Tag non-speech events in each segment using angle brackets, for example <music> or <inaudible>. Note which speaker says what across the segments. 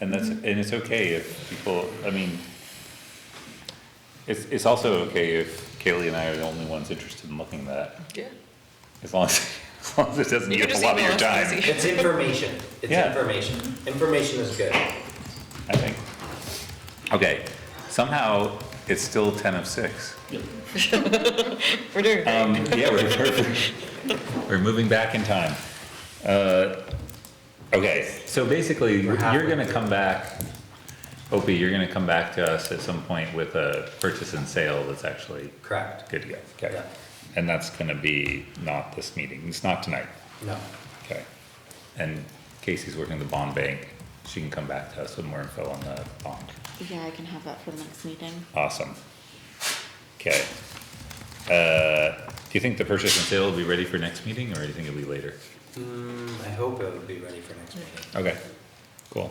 Speaker 1: And that's,
Speaker 2: Mm-hmm.
Speaker 1: and it's okay if people, I mean, it's, it's also okay if Kaylee and I are the only ones interested in looking at that,
Speaker 2: Yeah.
Speaker 1: as long as, <laughs> as long as it doesn't
Speaker 2: You
Speaker 1: eat up
Speaker 2: can
Speaker 1: a
Speaker 2: just
Speaker 1: lot of
Speaker 2: email
Speaker 1: your
Speaker 2: us,
Speaker 1: time,
Speaker 2: easy.
Speaker 3: It's information. It's
Speaker 1: Yeah.
Speaker 3: information. Information is good.
Speaker 1: I think. Okay, somehow, it's still ten of six.
Speaker 2: We're doing great.
Speaker 1: Um, yeah, we're, we're- <laughs> we're moving back in time. Uh, okay, so basically, you're
Speaker 3: halfway
Speaker 1: gonna come back, Opie, you're gonna come back to us at some point with a purchase and sale that's actually
Speaker 3: Correct.
Speaker 1: good to go. Okay,
Speaker 3: Yeah.
Speaker 1: and that's gonna be not this meeting, it's not tonight,
Speaker 3: No.
Speaker 1: okay? And Casey's working the bond bank, she can come back to us with more info on the bond.
Speaker 4: Yeah, I can have that for the next meeting.
Speaker 1: Awesome. Okay. Uh, do you think the purchase and sale will be ready for next meeting, or do you think it'll be later?
Speaker 3: Mm, I hope it would be ready for next meeting.
Speaker 1: Okay, cool.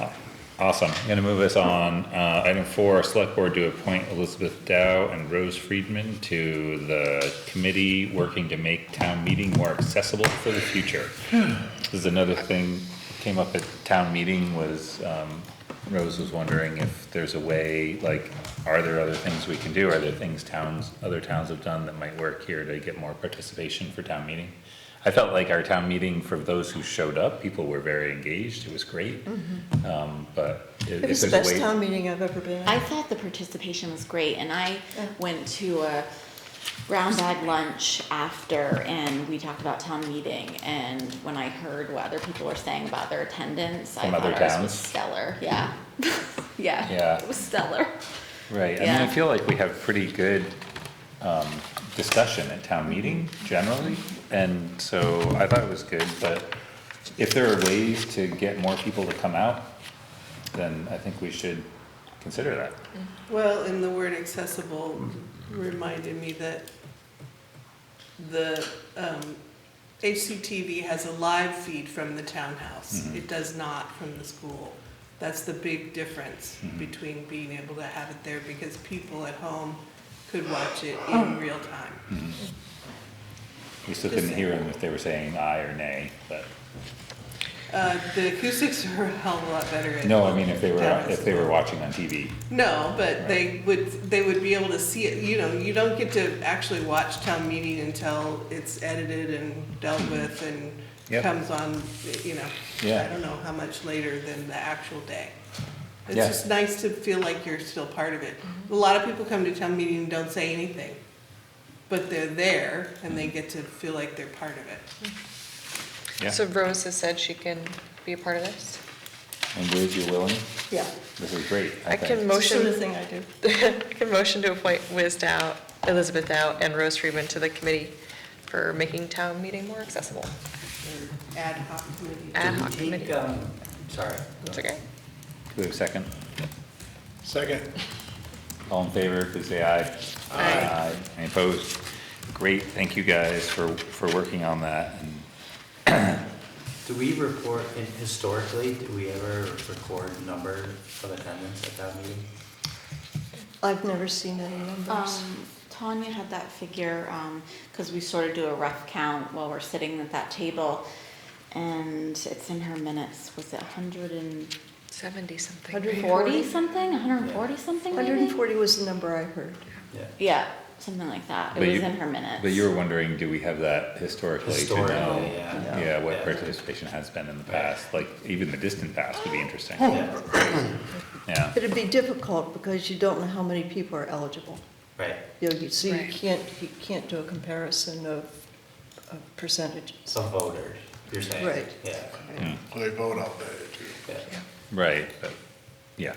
Speaker 1: Aw- Awesome, I'm gonna move us on, uh, item four, select board to appoint Elizabeth Dow and Rose Friedman to the committee working to make town meeting more accessible for the future. This is another thing that came up at town meeting was, um, Rose was wondering if there's a way, like, are there other things we can do? Are there things towns, other towns have done that might work here to get more participation for town meeting? I felt like our town meeting, for those who showed up, people were very engaged, it was great. Um, but i- if
Speaker 5: Mm-hmm. It
Speaker 1: there's
Speaker 5: was the
Speaker 1: a way.
Speaker 5: best town meeting I've ever been
Speaker 4: I
Speaker 5: at.
Speaker 4: thought the participation was great and I went to a round bag lunch after and we talked about town meeting and when I heard what other people were saying about their attendance, I
Speaker 1: From other
Speaker 4: thought ours
Speaker 1: towns?
Speaker 4: was stellar, yeah. <laughs> Yeah.
Speaker 1: Yeah.
Speaker 4: It was stellar.
Speaker 1: Right, I mean, I
Speaker 4: Yeah.
Speaker 1: feel like we have pretty good, um, discussion at town meeting generally, and so I thought it was good, but if there are ways to get more people to come out, then I think we should consider that.
Speaker 5: Well, and the word accessible reminded me that the um, HCTV has a live feed from the townhouse.
Speaker 1: Mhm.
Speaker 5: It does not from the school. That's the big difference
Speaker 1: Mhm.
Speaker 5: between being able to have it there because people at home could watch it in real time.
Speaker 1: We still couldn't hear them if they were saying aye or nay, but,
Speaker 5: Uh, The acoustics <laughs> are a hell of a lot better. at-
Speaker 1: no, I mean, if they were,
Speaker 5: Yeah.
Speaker 1: if they were watching on TV.
Speaker 5: No, but they would, they would be able to see it, you know, you don't get to actually watch town meeting until it's edited and dealt with and
Speaker 1: Yep.
Speaker 5: comes on, you know,
Speaker 1: Yeah.
Speaker 5: I don't know how much later than the actual day. It's
Speaker 1: Yeah.
Speaker 5: just nice to feel like you're still part of it. A lot of people come to town meeting and don't say anything, but they're there and they get to feel like they're part of it.
Speaker 1: Yeah,
Speaker 2: So Rose has said she can be a part of this.
Speaker 1: and Liz, you're willing?
Speaker 6: Yeah.
Speaker 1: This is great, I
Speaker 2: I can
Speaker 1: think.
Speaker 6: It's the sort of
Speaker 2: motion,
Speaker 6: thing I do.
Speaker 2: <laughs> I can motion to appoint Wiz Dow, Elizabeth Dow, and Rose Friedman to the committee for making town meeting more accessible.
Speaker 5: Ad hoc committee.
Speaker 2: Ad hoc
Speaker 3: Do we think,
Speaker 2: committee.
Speaker 3: um, Sorry.
Speaker 2: That's okay.
Speaker 1: Do we have a second?
Speaker 6: Second.
Speaker 1: All in favor, please say aye.
Speaker 2: Aye.
Speaker 1: Any opposed? Great, thank you guys for, for working on that, and
Speaker 3: Do we report, in- historically, did we ever record number of attendance at that meeting?
Speaker 6: I've never seen any numbers.
Speaker 4: Um, Tanya had that figure, um, cause we sort of do a rough count while we're sitting at that table. And it's in her minutes, was it hundred and
Speaker 2: Seventy something.
Speaker 6: Hundred
Speaker 2: right?
Speaker 4: forty something, hundred and forty something maybe?
Speaker 6: 140 was the number I heard.
Speaker 3: Yeah.
Speaker 4: Yeah, something like that. It
Speaker 1: But
Speaker 4: was
Speaker 1: you-
Speaker 4: in her minutes.
Speaker 1: But you were wondering, do we have that historically to
Speaker 3: Historically,
Speaker 1: know?
Speaker 3: yeah.
Speaker 1: Yeah, what
Speaker 3: Yeah.
Speaker 1: participation has been in the past, like even the distant past would be interesting,
Speaker 3: Yeah,
Speaker 1: yeah.
Speaker 6: It'd be difficult because you don't know how many people are eligible.
Speaker 3: Right.
Speaker 6: You know, you- so you
Speaker 2: Right.
Speaker 6: can't, you can't do a comparison of of percentages.
Speaker 3: Some voters, you're saying.
Speaker 6: Right.
Speaker 3: Yeah,
Speaker 1: Mm,
Speaker 7: They vote out there too.
Speaker 3: yeah.
Speaker 1: Right, but, yeah,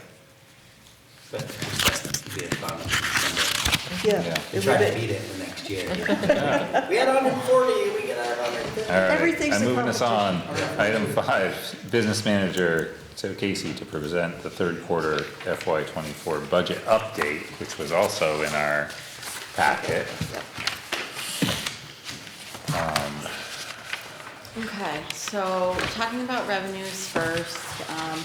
Speaker 3: But it'd be a fun number.
Speaker 1: Yeah.
Speaker 6: Yeah.
Speaker 3: We
Speaker 6: it
Speaker 3: try
Speaker 6: would
Speaker 3: to
Speaker 6: be-
Speaker 3: beat it the next year. We had hundred and forty, we get our hundred and fifty.
Speaker 1: all right,
Speaker 6: Everything's
Speaker 1: I'm
Speaker 6: a
Speaker 1: moving us on. Item five, business manager, so Casey to present the third quarter FY twenty-four budget update, which was also in our packet.
Speaker 4: Okay, so talking about revenues first, um,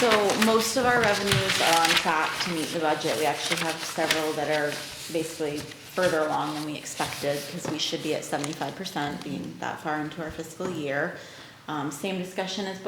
Speaker 4: so most of our revenues are on track to meet the budget. We actually have several that are basically further along than we expected, because we should be at seventy-five percent being that far into our fiscal year. Um, same discussion as